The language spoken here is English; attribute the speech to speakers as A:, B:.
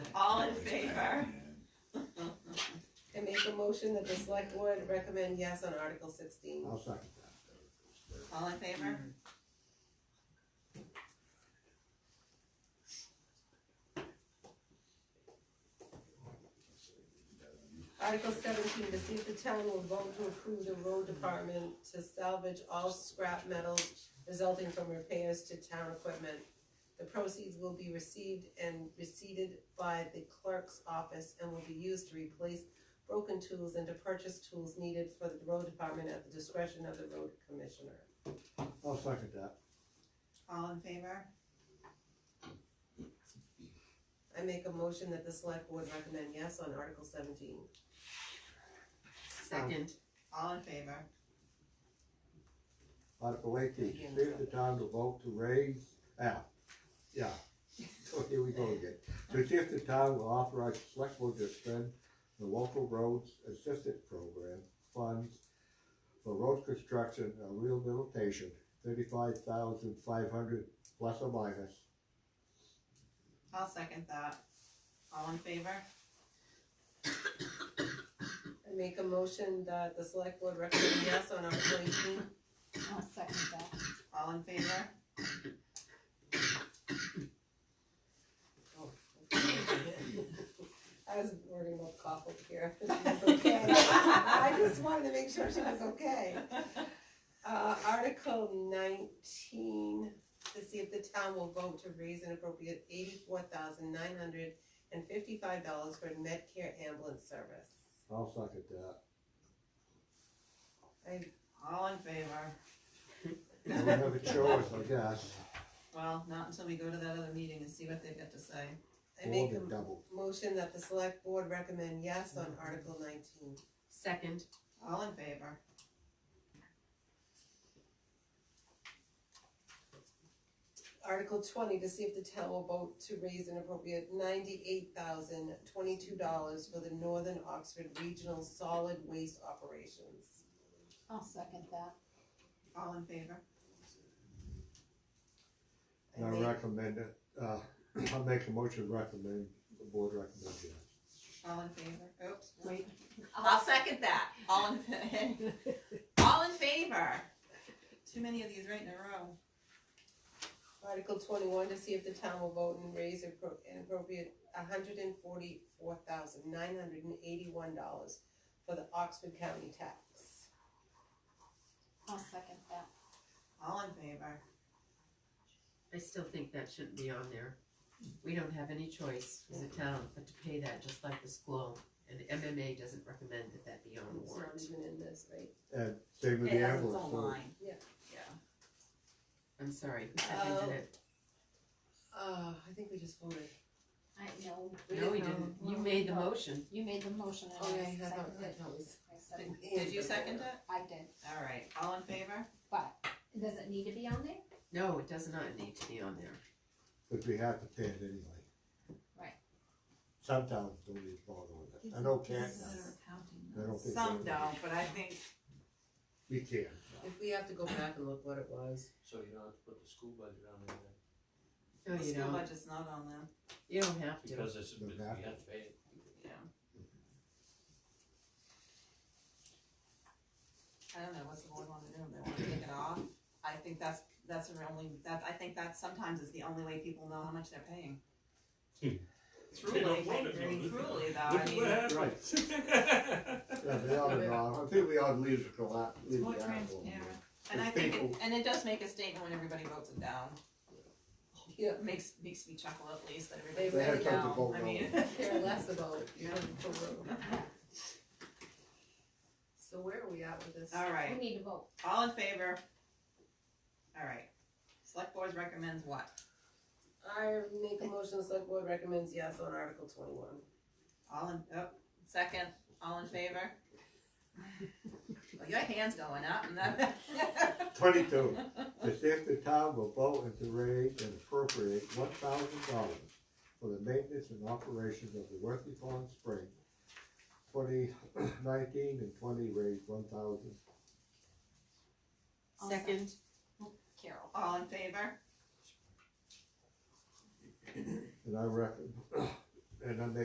A: motion that the select board recommend yes on Article sixteen.
B: I'll second that.
C: All in favor?
A: Article seventeen, to see if the town will vote to approve the road department to salvage all scrap metals resulting from repairs to town equipment. The proceeds will be received and receipted by the clerk's office and will be used to replace broken tools and to purchase tools needed for the road department at the discretion of the road commissioner.
B: I'll second that.
C: All in favor?
A: I make a motion that the select board recommend yes on Article seventeen.
D: Second,
C: All in favor?
B: Article eighteen, see if the town will vote to raise, ah, yeah. So here we go again. To see if the town will authorize the select board to spend the local roads assistance program funds for road construction and rehabilitation, thirty-five thousand five hundred plus or minus.
C: I'll second that. All in favor?
A: I make a motion that the select board recommend yes on Article eighteen.
E: I'll second that.
C: All in favor?
A: I was wording up coughled here. Okay, I just wanted to make sure she was okay. Uh, Article nineteen, to see if the town will vote to raise an appropriate eighty-four thousand nine hundred and fifty-five dollars for Medicare ambulance service.
B: I'll second that.
C: All in favor?
B: We don't have a choice, I guess.
C: Well, not until we go to that other meeting and see what they've got to say.
A: I make
B: More than
A: a
B: double.
A: motion that the select board recommend yes on Article nineteen.
D: second,
C: All in favor?
A: Article twenty, to see if the town will vote to raise an appropriate ninety-eight thousand twenty-two dollars for the Northern Oxford Regional Solid Waste Operations.
E: I'll second that.
C: All in favor?
B: I
A: I make,
B: recommend it, uh, I'll make a motion to recommend, the board recommends yes.
C: All in favor? Oops.
E: Wait.
C: I'll second that. All in, fa- all in favor? Too many of these right in a row.
A: Article twenty-one, to see if the town will vote and raise appro- an appropriate hundred and forty-four thousand nine hundred and eighty-one dollars for the Oxford County tax.
E: I'll second that.
C: All in favor?
D: I still think that shouldn't be on there. We don't have any choice as a town but to pay that, just like the school, and MMA doesn't recommend that that be on the
A: It's not
D: warrant.
A: even in this, right?
B: And same with
C: It
B: the
C: has its
B: ambulance.
C: own
B: so-
C: line.
A: Yeah.
C: Yeah.
D: I'm sorry, who seconded it?
A: Uh, I think we just voted.
E: I know,
D: No, we didn't, you made the motion.
E: you made the motion and
A: Oh, yeah,
E: I
A: you have,
E: seconded it. I seconded it.
C: Did you second it?
E: I did,
C: All right. All in favor?
E: but does it need to be on there?
D: No, it does not need to be on there.
B: But we have to pay it anyway.
E: Right.
B: Some towns don't even bother with it, I know Canton, does. I don't think.
C: Some
B: they-
C: don't, but I think
B: We can,
A: If we have to go back and look what it was.
F: So you don't have to put the school budget on there then,
D: No,
C: the
D: you
C: school
D: don't,
C: budget's not on them.
D: you don't have to.
F: because it's, we
B: Doesn't have
F: have
B: to.
F: to pay it.
C: Yeah. I don't know, what's the board wanna do, they wanna take it off, I think that's, that's the only, that, I think that sometimes is the only way people know how much they're paying. Truly,
F: don't want it,
C: I mean,
F: though.
C: truly though, I mean,
B: yeah, they ought to know, I think we ought to leave it till that, leave
C: More
B: the article.
C: transparent.
B: If
C: and I think, it-
B: people-
C: and it does make a statement when everybody votes it down.
A: Yeah.
C: It Makes, makes me chuckle at least that
A: They
C: everybody
A: had
C: voted it
B: something to
C: down,
B: vote
C: I
B: on.
C: mean.
A: care less about, you know, the road. So where are we at with this?
C: Alright.
E: We need to vote.
C: All in favor? Alright, select board recommends what?
A: I make a motion, the select board recommends yes on Article twenty-one.
C: All in, oh, second, all in favor? Well, your hand's going up and that.
B: Twenty-two, to see if the town will vote and to raise and appropriate one thousand dollars for the maintenance and operation of the Worthy Pond Spring. Twenty nineteen and twenty raised one thousand.
E: I'll
D: Second,
E: Carol.
C: All in favor?
B: And I reckon, and I make